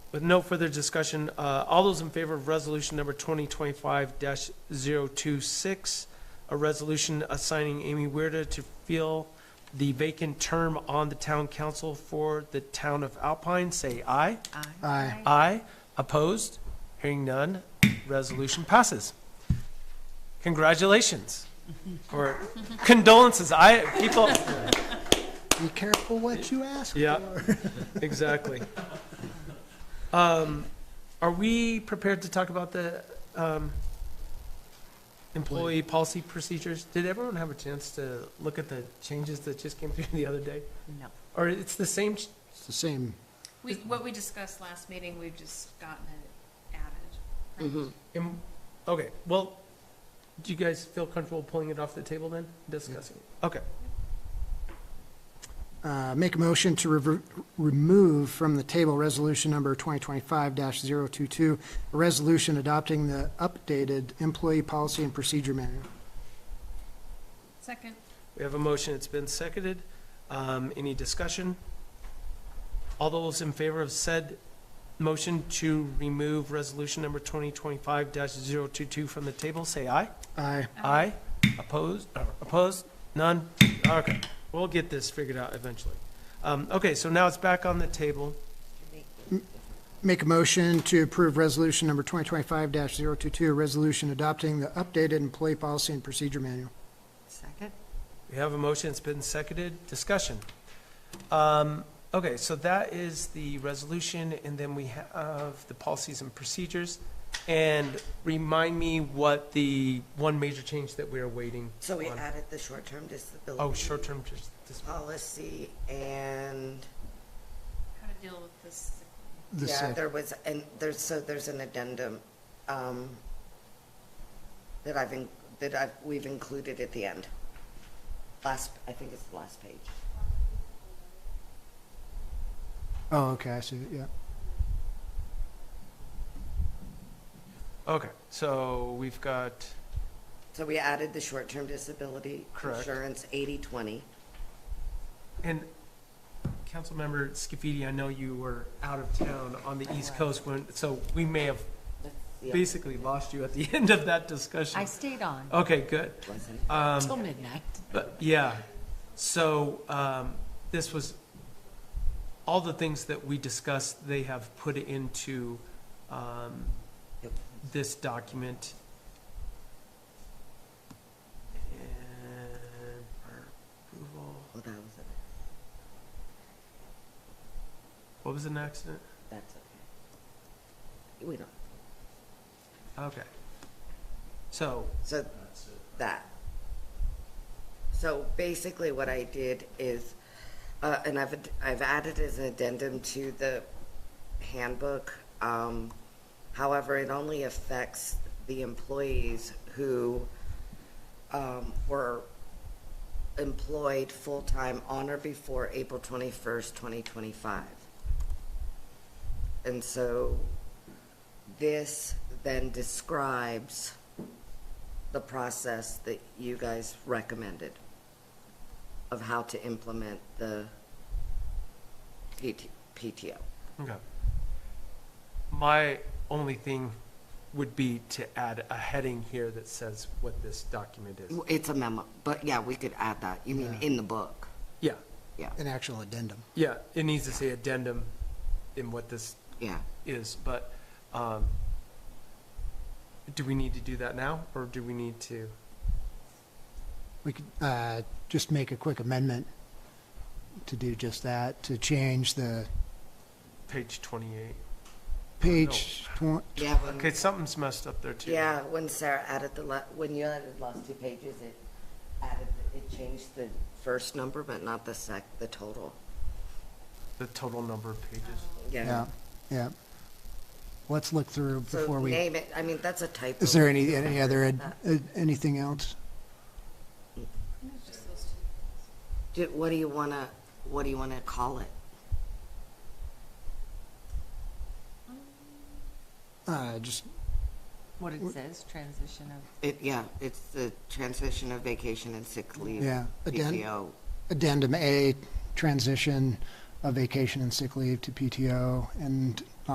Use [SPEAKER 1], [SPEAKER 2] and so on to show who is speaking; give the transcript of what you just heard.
[SPEAKER 1] With no further discussion, uh, all those in favor of resolution number 2025-026, a resolution assigning Amy Weirda to fill the vacant term on the town council for the town of Alpine, say aye.
[SPEAKER 2] Aye.
[SPEAKER 1] Aye. Opposed? Hearing none, resolution passes. Congratulations. Or condolences, I, people,
[SPEAKER 2] Be careful what you ask
[SPEAKER 1] Yeah.
[SPEAKER 2] for.
[SPEAKER 1] exactly. Um, Are we prepared to talk about the um, employee policy procedures? Did everyone have a chance to look at the changes that just came through the other day?
[SPEAKER 3] No.
[SPEAKER 1] Or it's the same, ch-
[SPEAKER 2] It's the same.
[SPEAKER 4] We, what we discussed last meeting, we've just gotten it added. right?
[SPEAKER 1] em- okay, well, do you guys feel comfortable pulling it off the table then, discussing? it? Okay.
[SPEAKER 2] Uh, Make a motion to rever- remove from the table resolution number 2025-022, a resolution adopting the updated employee policy and procedure manual.
[SPEAKER 4] Second,
[SPEAKER 1] We have a motion, it's been seconded. Um, Any discussion? All those in favor of said motion to remove resolution number 2025-022 from the table, say aye.
[SPEAKER 2] Aye.
[SPEAKER 4] um,
[SPEAKER 1] Aye. Opposed, Uh, opposed, none? Okay, we'll get this figured out eventually. Um, Okay, so now it's back on the table.
[SPEAKER 2] Make a motion to approve resolution number 2025-022, a resolution adopting the updated employee policy and procedure manual.
[SPEAKER 3] Second?
[SPEAKER 1] We have a motion, it's been seconded, discussion. Um, Okay, so that is the resolution, and then we have the policies and procedures. And remind me what the one major change that we're waiting
[SPEAKER 5] So we
[SPEAKER 1] on.
[SPEAKER 5] added the short-term disability.
[SPEAKER 1] Oh, short-term, dis- dis-
[SPEAKER 5] Policy and,
[SPEAKER 4] how to deal with this.
[SPEAKER 2] The
[SPEAKER 5] yeah,
[SPEAKER 2] sec-
[SPEAKER 5] there was, and there's, so there's an addendum, um, that I've, in- that I've, we've included at the end. Last, I think it's the last page.
[SPEAKER 2] Oh, okay, I see, yeah.
[SPEAKER 1] okay, so we've got,
[SPEAKER 5] So we added the short-term disability.
[SPEAKER 1] Correct.
[SPEAKER 5] Insurance eighty-twenty.
[SPEAKER 1] and Councilmember Scafidi, I know you were out of town on the East Coast when, so we may have basically lost you at the end of that discussion.
[SPEAKER 3] I stayed on
[SPEAKER 1] Okay, good. Um,
[SPEAKER 3] till midnight.
[SPEAKER 1] But, yeah, so, um, this was, all the things that we discussed, they have put into, um,
[SPEAKER 5] Yep.
[SPEAKER 1] this document. And for approval,
[SPEAKER 5] Well, Oh, that was it.
[SPEAKER 1] what was an accident?
[SPEAKER 5] That's okay. We don't,
[SPEAKER 1] Okay. So,
[SPEAKER 5] so that. So basically what I did is, uh, and I've, I've added as an addendum to the handbook. Um, however, it only affects the employees who, um, were employed full-time on or before April twenty-first, twenty twenty-five. And so this then describes the process that you guys recommended of how to implement the PT PTO.
[SPEAKER 1] okay. My only thing would be to add a heading here that says what this document is.
[SPEAKER 5] It's a memo, but yeah, we could add that. You mean
[SPEAKER 2] Yeah.
[SPEAKER 5] in the book?
[SPEAKER 1] Yeah,
[SPEAKER 5] Yeah,
[SPEAKER 2] An actual addendum.
[SPEAKER 1] yeah, it needs to say addendum in what this
[SPEAKER 5] yeah.
[SPEAKER 1] is, but, um, do we need to do that now, or do we need to?
[SPEAKER 2] We could uh, just make a quick amendment to do just that, to change the
[SPEAKER 1] Page twenty-eight.
[SPEAKER 2] page twen-
[SPEAKER 5] Yeah, when-
[SPEAKER 1] Okay, something's messed up there too.
[SPEAKER 5] yeah, when Sarah added the, la- when you added the last two pages, it added, it changed the first number, but not the sec, the total.
[SPEAKER 1] The total number of pages.
[SPEAKER 2] Yeah,
[SPEAKER 5] Yeah.
[SPEAKER 2] yeah. Let's look through
[SPEAKER 5] So
[SPEAKER 2] before we,
[SPEAKER 5] name it, I mean, that's a typo.
[SPEAKER 2] is there any, any
[SPEAKER 5] uh,
[SPEAKER 2] other, ad- ad- anything else?
[SPEAKER 4] Just those two.
[SPEAKER 5] Do- What do you want to, what do you want to call it?
[SPEAKER 2] Uh, Just,
[SPEAKER 3] What it says, transition of,
[SPEAKER 5] It, yeah, it's the transition of vacation and sick leave.
[SPEAKER 2] Yeah, addend-
[SPEAKER 5] PTO.
[SPEAKER 2] addendum A, transition of vacation and sick leave to PTO, and